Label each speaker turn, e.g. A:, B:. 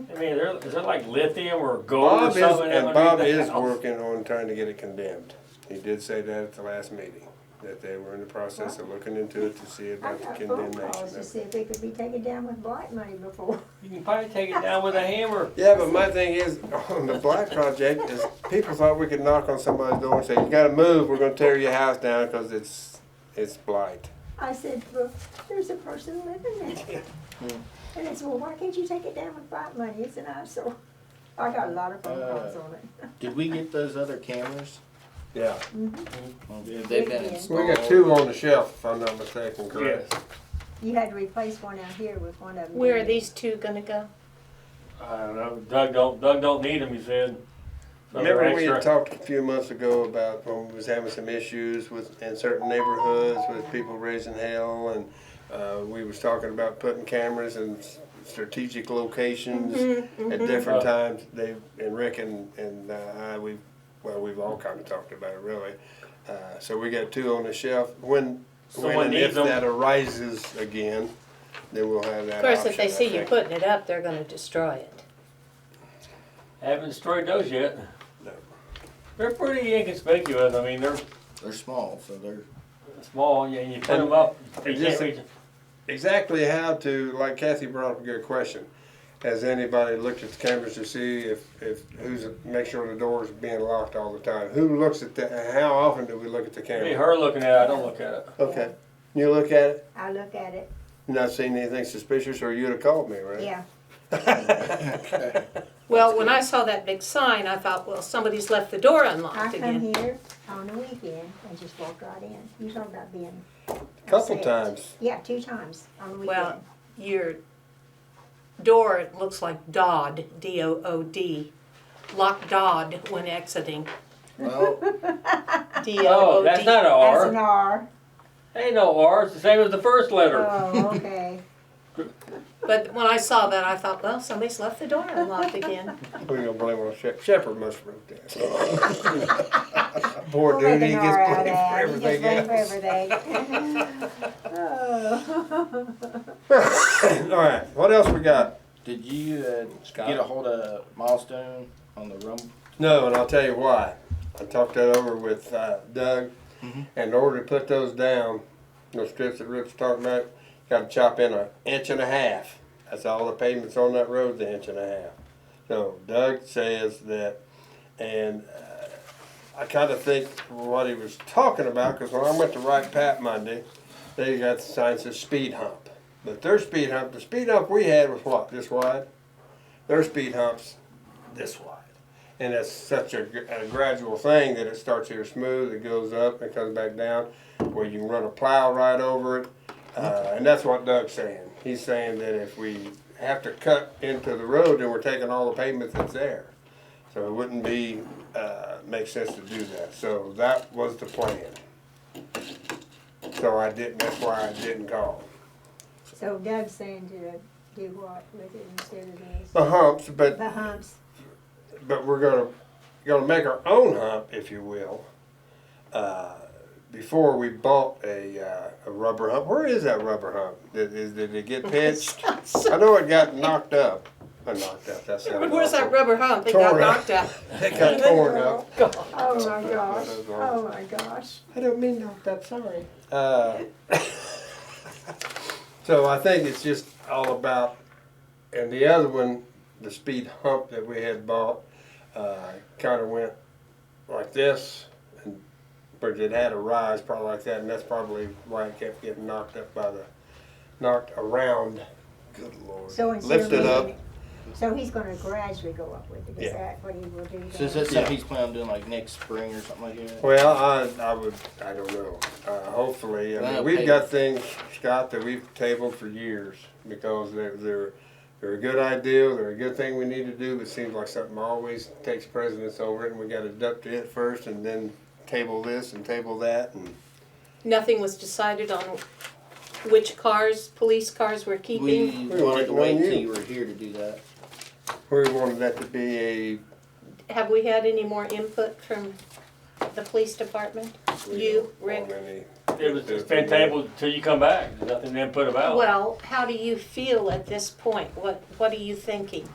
A: I mean, there, is there like lithium or gold or
B: Bob is,
A: something
B: and Bob
A: underneath the
B: is
A: house?
B: working on trying to get it condemned. He did say that at the last meeting, that they were in the process of looking into it to see
C: I
B: about the
C: got phone
B: condemnation
C: calls
B: of
C: to
B: it.
C: see if they could be taken down with blight money before.
A: You can probably take it down with a hammer.
B: Yeah, but my thing is, on the black project, is people thought we could knock on somebody's door and say, you gotta move, we're gonna tear your house down because it's, it's blight.
C: I said, well, there's a person living there. And it's, well, why can't you take it down with blight money? It's an eyesore. I got a lot of phone
B: Uh.
C: calls on it.
D: Did we get those other cameras?
B: Yeah.
D: Have they
C: Yeah.
D: been
C: We
B: We
D: installed?
B: got two on the shelf, if I'm not mistaken, correct?
C: You had to replace one out here with one of them.
E: Where are these two gonna go?
A: I don't know, Doug don't, Doug don't need them, he said. So they're
B: Remember we had
A: extra.
B: talked a few months ago about when we was having some issues with, in certain neighborhoods with people raising hell and, uh, we was talking about putting cameras in s- strategic locations
E: Mm-hmm,
B: at different
A: Uh,
B: times. They, and Rick and, and uh, I, we, well, we've all kinda talked about it really. Uh, so we got two on the shelf. When, when
A: Someone
B: and if
A: needs them.
B: that arises again, then we'll have
E: Of
B: that
E: course, if
B: option, I
E: they see you
B: think.
E: putting it up, they're gonna destroy it.
A: Haven't destroyed those yet.
B: No.
A: They're pretty inconspicuous, I mean, they're
D: They're small, so they're.
A: small, and you put
B: And-
A: them up, you can't
B: and just-
A: reach.
B: exactly how to, like Kathy brought up a good question. Has anybody looked at the cameras to see if, if who's, make sure the door's being locked all the time? Who looks at the, how often do we look at the
A: Be
B: camera?
A: her looking at it, I don't look at it.
B: Okay, you look at it,
C: I look at it,
B: not seen anything suspicious, or you'd have called me, right?
C: yeah.
E: Well, when I saw that big sign, I thought, well, somebody's left the door
C: I
E: unlocked
C: come
E: again.
C: here on the weekend and just walk right in. You talk about being.
B: Couple
C: upset.
B: times.
C: Yeah, two times on the weekend.
E: Well, your door looks like Dodd, D-O-O-D, lock Dodd when exiting,
D: Well,
E: D-O-O-D.
A: Oh, that's not an
C: That's an
A: R.
C: R.
A: Ain't no R, it's the same as the first letter.
C: Oh, okay.
E: But when I saw that, I thought, well, somebody's left the door unlocked again.
B: We're gonna blame it on Shep, Shepherd must have wrote that. Poor
C: We'll
B: dude,
C: make
B: he
C: an R
B: gets blamed for
C: out of that. He
B: everything
C: gets blamed
B: else.
C: for everything. Oh.
B: Alright, what else we got?
D: did you uh,
B: Scott?
D: get a hold of Milestone on the room?
B: No, and I'll tell you why. I talked that over with uh, Doug, and in order to put those down, those strips that Rick's talking about, got to chop in an inch and a half. That's all the pavements on that road's an inch and a half. So Doug says that, and uh, I kind of think what he was talking about, because when I went to Wright Pat Monday, they got the sign that says speed hump. But their speed hump, the speed hump we had was what, this wide? Their speed hump's this wide. And it's such a, gr- a gradual thing that it starts here smooth, it goes up, it comes back down, where you can run a plow right over it. Uh, and that's what Doug's saying. He's saying that if we have to cut into the road, then we're taking all the pavement that's there. So it wouldn't be, uh, make sense to do that. So that was the plan. So I didn't, that's why I didn't call.
C: So Doug's saying to do what with it instead of this?
B: The humps, but
C: The humps,
B: but we're gonna gonna make our own hump, if you will. Uh, before we bought a uh, a rubber hump, where is that rubber hump? Did, is, did it get pitched? I know it got knocked up. Uh, knocked up. That's not
E: Where's that rubber hump that
B: Tore it.
E: got knocked out?
B: It got torn up.
C: oh my gosh,
B: those are-
C: oh my gosh.
B: I don't mean knocked up. Sorry. Uh, so I think it's just all about. And the other one, the speed hump that we had bought, uh, kind of went like this, and but it had a rise probably like that, and that's probably why it kept getting knocked up by the knocked around. Good lord.
C: So instead of
B: Lifted up.
C: moving it- So he's gonna gradually go up with it, is
B: Yeah.
C: that what he will do?
D: So is
C: then?
D: that something he's planning on doing like next spring or something like that?
B: Well, I, I would, I don't know. Uh, hopefully, I mean,
D: Well,
B: we've
D: pay-
B: got things, Scott, that we've tabled for years because they're, they're, they're a good idea, they're a good thing we need to do, but it seems like something always takes precedence over it and we gotta duck to it first and then table this and table that and.
E: Nothing was decided on which cars, police cars were keeping.
D: We
B: We
D: wanted to wait
B: want
D: till
B: you.
D: you were here to do that.
B: We wanted that to be a,
E: Have we had any more input from the police department? You,
B: we don't
E: Rick?
B: want any-
A: It was, it's been tabled till you come back, there's nothing to put about.
E: Well, how do you feel at this point? What, what are you thinking?